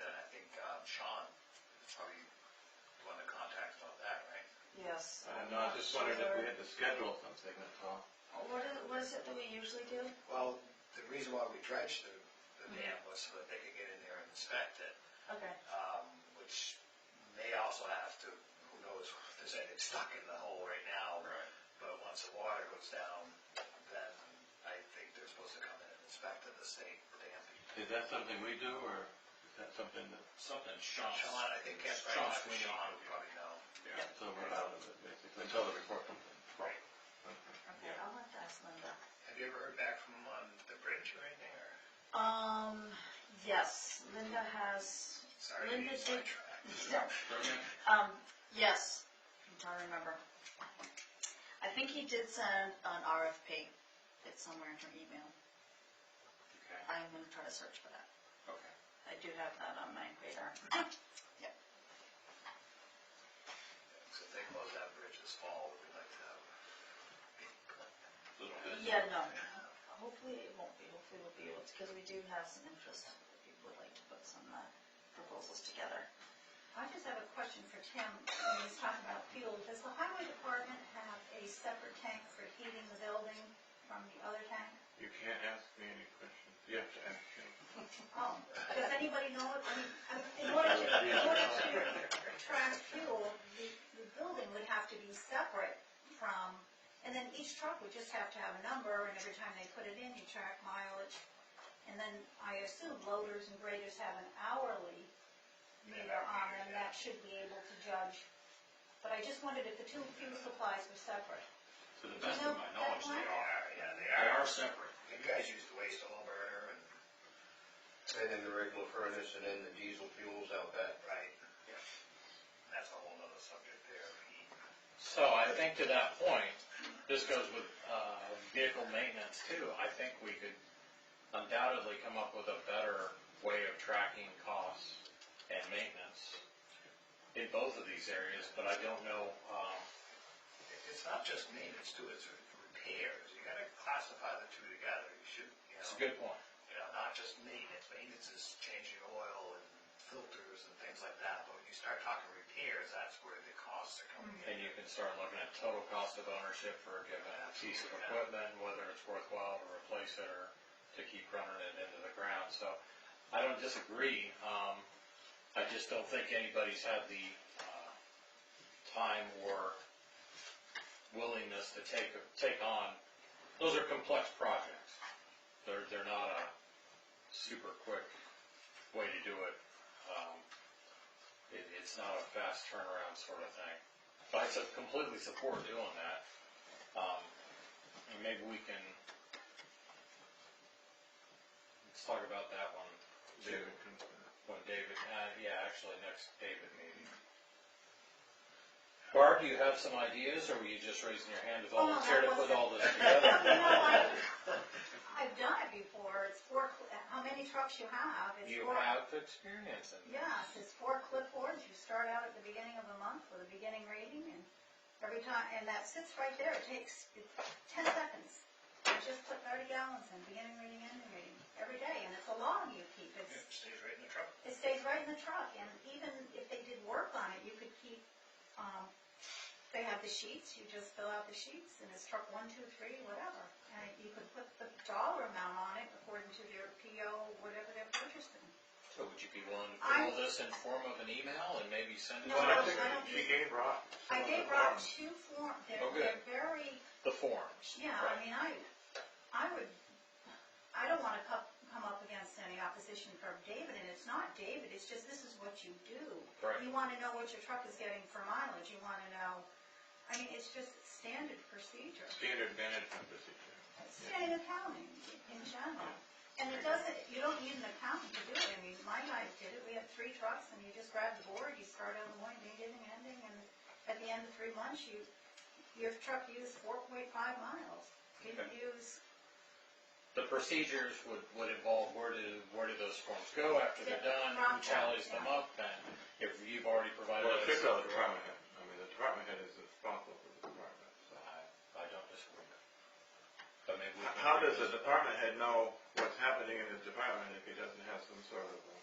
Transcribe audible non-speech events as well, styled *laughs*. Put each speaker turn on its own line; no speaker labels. uh,
just wondered if we had to schedule something, that's all.
What is, what is it that we usually do?
Well, the reason why we dredged the, the dam was so that they could get in there and inspect it,
Okay.
um, which they also have to, who knows if there's anything stuck in the hole right now.
Right.
But once the water goes down, then I think they're supposed to come in and inspect it, the state dam.
Is that something we do, or is that something that,
Something Sean.
Sean, I think Kent, right, Sean
Sean Sweeney.
would probably know.
yeah, so we're out of it, basically, until the report comes in?
Right.
Okay, I'll have to ask Linda.
Have you ever heard back from, um, the bridge or anything, or?
Um, yes, Linda has, *laughs*
Sorry,
Linda
you
did-
sidetracked.
no, um, yes, I'm trying to remember. I think he did send an RFP. It's somewhere in her email.
Okay.
I'm gonna try to search for that.
Okay.
I do have that on my radar.
So if they close that bridge this fall, we'd like to have.
Little bit.
Yeah, no, hopefully it won't be, hopefully we'll be able to, because we do have some interest, if people would like to put some uh, proposals together.
I just have a question for Tim, when he's talking about fuel. Does the highway department have a separate tank for heating the building from the other tank?
You can't ask me any questions, you have to ask him.
Oh, does anybody know it? I mean, I mean, in order to, in order
*laughs*
to track fuel, the, the building would have to be separate from, and then each truck would just have to have a number, and every time they put it in, you track mileage. And then I assume loaders and graders have an hourly meter on them, that should be able to judge. But I just wondered if the two fuel supplies were separate.
To the best of my knowledge, they
They
are.
are, yeah, they
They
are.
are separate.
You guys use the waste oil burner and.
And then the regular furnace and then the diesel fuels out back.
Right. That's a whole nother subject there.
So I think to that point, this goes with uh, vehicle maintenance too. I think we could undoubtedly come up with a better way of tracking costs and maintenance in both of these areas, but I don't know, um,
It- It's not just maintenance too, it's repairs. You gotta classify the two together. You should, you
it's a
know,
good point.
you know, not just maintenance. Maintenance is changing oil and filters and things like that, but when you start talking repairs, that's where the costs are coming in.
And you can start looking at total cost of ownership for a given piece of equipment, whether it's worthwhile to replace it or to keep running it into the ground. So I don't disagree. Um, I just don't think anybody's had the, uh, time or willingness to take, take on. Those are complex projects. They're, they're not a super quick way to do it. Um, it, it's not a fast turnaround sort of thing. But I su- completely support doing that. Um, and maybe we can, let's talk about that one, David, when David, uh, yeah, actually next David meeting. Barb, do you have some ideas, or were you just raising your hand to
Oh,
volunteer to put all this
*laughs* You know,
together?
I- I've done it before, it's four, cl- how many trucks you have, it's
You
four.
have experience in this.
Yes, it's four clipboards, you start out at the beginning of a month with a beginning reading, and every time, and that sits right there, it takes it's ten seconds. I just put thirty gallons in, beginning reading, ending reading, every day, and it's a log you keep,
It
it's,
stays right in the truck.
it stays right in the truck, and even if they did work on it, you could keep, um, they have the sheets, you just fill out the sheets, and it's truck one, two, three, whatever. And you could put the dollar amount on it according to their PO, whatever they're purchasing.
So would you be willing to put
I-
all this in form of an email and maybe send it
No,
Well, I
to
think
I don't-
she gave Rob. some
I
of
gave
the
Rob
forms.
two form, they're,
Okay.
they're very,
the forms?
yeah, I mean, I, I would, I don't wanna come, come up against any opposition from David, and it's not David, it's just this is what you do.
Right.
You wanna know what your truck is getting for mileage, you wanna know, I mean, it's just standard procedure,
Standard management procedure.
standard accounting in general. And it doesn't, you don't need an accountant to do it, I mean, my guys did it, we had three trucks, and you just grab the board, you start on the one, beginning, ending, and at the end of three months, you, your truck used four point five miles. Didn't use,
The procedures would, would involve where do, where do those forms go after they're done, who tallies them up, and if you've already provided.
Well,
us-
it's just the department head, I mean, the department head is responsible for the department, so.
I, I don't disagree. But maybe we
H-
can.
How does
revisit-
the department head know what's happening in his department if he doesn't have some sort of, uh,